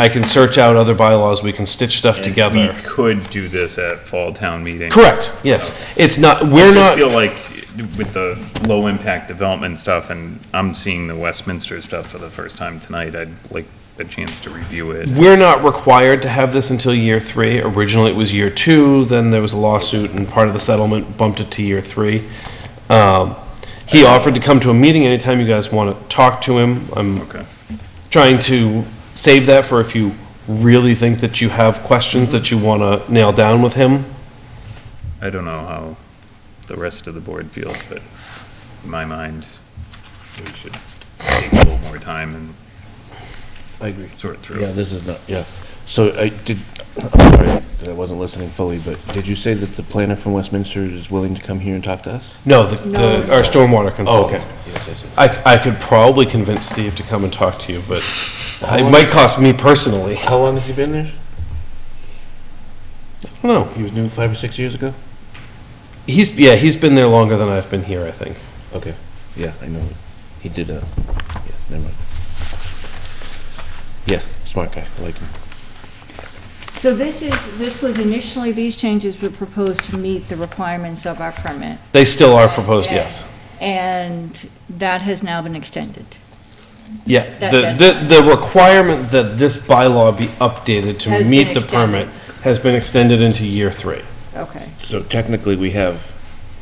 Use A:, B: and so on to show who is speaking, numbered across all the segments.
A: I can search out other bylaws, we can stitch stuff
B: And
A: together.
B: We could do this at fall town meeting.
A: Correct, yes. It's not, we're
B: I
A: not,
B: feel like with the low impact development stuff and I'm seeing the Westminster stuff for the first time tonight, I'd like a chance to review it.
A: we're not required to have this until year three. Originally, it was year two, then there was a lawsuit, and part of the settlement bumped it to year three. Um, He offered to come to a meeting anytime you guys want to talk to him. I'm
B: Okay.
A: trying to save that for if you really think that you have questions that you want to nail down with him.
B: I don't know how the rest of the board feels, but in my mind, we should take a little more time and
C: I agree.
B: sort through.
C: Yeah,
B: it.
C: this is not, yeah. So I did, I'm sorry that I wasn't listening fully, but did you say that the planner from Westminster is willing to come here and talk to us?
A: No, the, the, our stormwater
C: Oh,
B: Oh,
A: consultant.
C: Yes, yes, yes.
A: I, I could probably convince Steve to come and talk to you, but it might cost me personally.
C: How long has he been there?
A: No,
C: He was new five or six years ago?
A: he's, yeah, he's been there longer than I've been here, I think.
C: Okay, yeah, I know. He did, uh, yeah, never mind. Yeah, smart guy, I like him.
D: So this is, this was initially, these changes were proposed to meet the requirements of our permit.
A: They still are proposed, yes.
D: And that has now been extended.
A: Yeah,
D: That-
A: the, the, the requirement that this bylaw be updated to
D: Has been
A: meet the permit
D: extended.
A: has been extended into year three.
D: Okay.
C: So technically, we have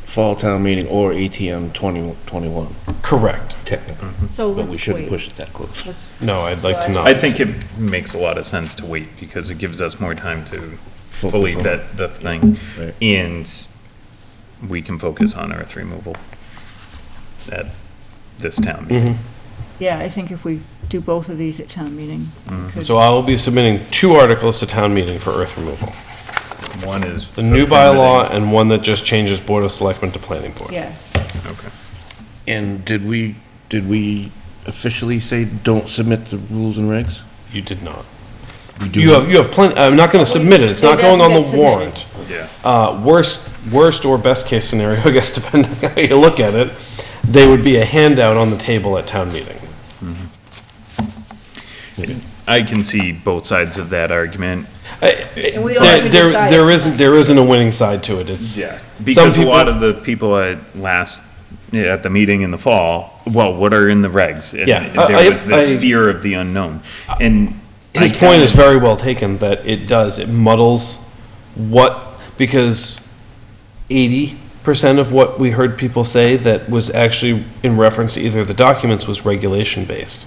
C: fall town meeting or ATM 2021,
A: Correct.
C: technically,
D: So let's wait.
C: but we shouldn't push it that close.
D: Let's-
A: No, I'd like to
D: So I-
B: I
A: not.
B: think it makes a lot of sense to wait because it gives us more time to
C: Focus
B: fully
C: on-
B: vet the thing.
C: Right.
B: And we can focus on earth removal at this town meeting.
D: Yeah, I think if we do both of these at town meeting. we
C: Mm-hmm.
D: could-
A: So I will be submitting two articles to town meeting for earth removal.
B: One is.
A: Mm-hmm. The new
B: permitting.
A: bylaw and one that just changes Board of Selectmen to Planning Board.
D: Yes.
B: Okay.
C: And did we, did we officially say don't submit the rules and regs?
A: You did not.
C: We do
A: You have, you have plenty, I'm not gonna submit it, it's not
D: It
A: going on
D: doesn't
A: the
D: get
A: warrant.
D: submitted.
B: Yeah.
A: Uh, worst, worst or best case scenario, I guess depending on how you look at it, they would be a handout on the table at town meeting.
B: I can see both sides of that argument.
D: And we don't have
A: There,
D: to
A: there-
D: decide.
A: there isn't, there isn't a winning side to it, it's. some
B: Because a lot
A: people-
B: of the people at last, yeah, at the meeting in the fall, well, what are in the regs? And
A: Yeah, I- I-
B: There was this
A: I-
B: fear of the unknown. And. I
A: His point
B: kinda-
A: is very well taken, that it does, it muddles what, because eighty percent of what we heard people say that was actually in reference to either of the documents was regulation-based.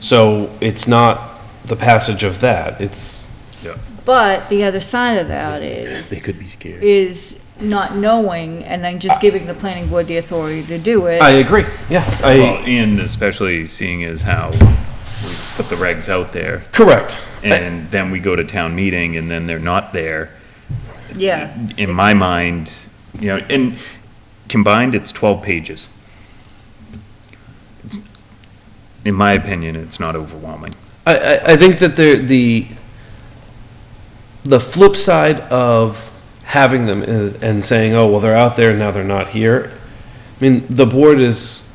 A: So it's not the passage of that, it's,
B: Yeah.
D: But the other side of that is.
C: They could be scared.
D: Is not knowing and then just giving the planning board the authority to do it.
A: I agree, yeah,
B: Well,
A: I,
B: and especially seeing as how we put the regs out there,
A: correct.
B: and then we go to town meeting, and then they're not there.
D: Yeah.
B: In my mind, you know, and combined, it's twelve pages. It's- In my opinion, it's not overwhelming.
A: I, I, I think that there, the, the flip side of having them is, and saying, oh, well, they're out there, now they're not here. I mean, the board is,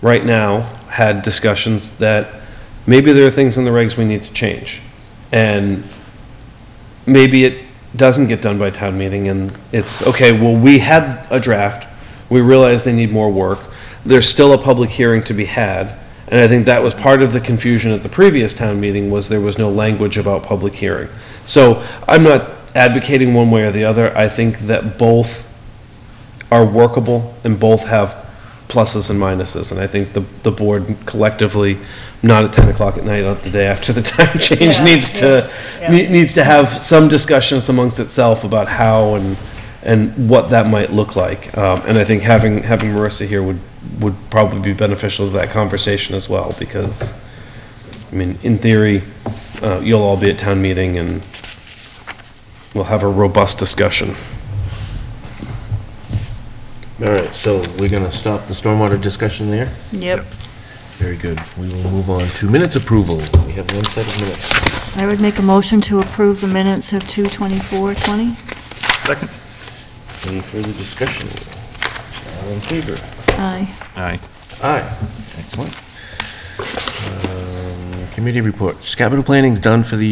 A: right now, had discussions that maybe there are things in the regs we need to change. And maybe it doesn't get done by town meeting and it's, okay, well, we had a draft, we realize they need more work, there's still a public hearing to be had, and I think that was part of the confusion at the previous town meeting was there was no language about public hearing. So I'm not advocating one way or the other, I think that both are workable and both have pluses and minuses, and I think the, the board collectively, not at ten o'clock at night, not the day after the time change,
D: Yeah,
A: needs to,
D: yeah, yeah.
A: ne- needs to have some discussions amongst itself about how and, and what that might look like. Um, and I think having, having Marissa here would, would probably be beneficial to that conversation as well, because, I mean, in theory, uh, you'll all be at town meeting and we'll have a robust discussion.
C: All right, so we're gonna stop the stormwater discussion there?
D: Yep.
C: Very good. We will move on to minutes approval. We have one set of minutes.
D: I would make a motion to approve the minutes of 2:24:20.
B: Second.
C: Any further discussion? All in favor?
D: Aye.
B: Aye.
C: Aye. Excellent. Um, Committee reports. Capital planning's done for the